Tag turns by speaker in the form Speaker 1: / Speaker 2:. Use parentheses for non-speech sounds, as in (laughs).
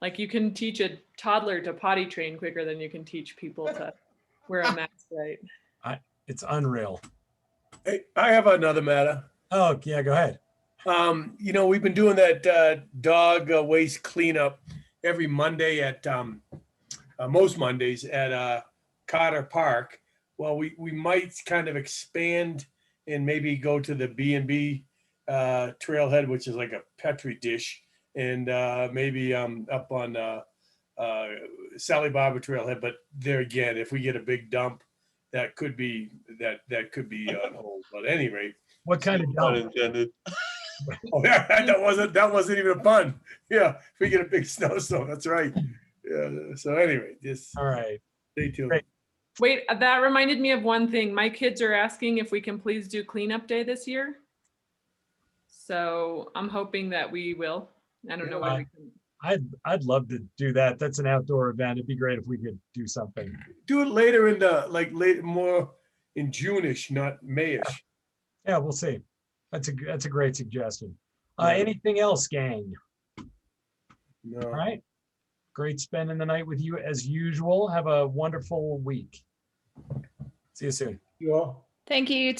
Speaker 1: Like you can teach a toddler to potty train quicker than you can teach people to wear a mask, (laughs) right?
Speaker 2: It's unreal.
Speaker 3: Hey, I have another matter.
Speaker 2: Oh, yeah, go ahead.
Speaker 3: Um, you know, we've been doing that uh, dog uh, waste cleanup every Monday at um, uh, most Mondays at uh, Carter Park. Well, we we might kind of expand and maybe go to the B and B uh, trailhead, which is like a petri dish, and uh, maybe um, up on uh, uh, Sally Barber trailhead. But there again, if we get a big dump, that could be that that could be on hold. But at any rate.
Speaker 2: What kind of
Speaker 4: Not
Speaker 2: dump? (laughs)
Speaker 4: intended.
Speaker 3: Oh, (laughs) yeah, that wasn't, that wasn't even a pun. Yeah, if we get a big snowstorm, that's right. Yeah, so anyway, just
Speaker 2: All right.
Speaker 3: stay tuned.
Speaker 2: Great.
Speaker 1: Wait, uh, that reminded me of one thing. My kids are asking if we can please do cleanup day this year. So I'm hoping that we will. I don't know when we can.
Speaker 2: I'd I'd love to do that. That's an outdoor event. It'd be great if we could do something.
Speaker 3: Do it later in the, like, late, more in June-ish, not May-ish.
Speaker 2: Yeah, we'll see. That's a g- that's a great suggestion. Uh,
Speaker 3: Yeah.
Speaker 2: anything else, gang? All
Speaker 3: No,
Speaker 2: right. Great spending the night with you as usual. Have a wonderful week. See you soon.
Speaker 3: you all?
Speaker 5: Thank you.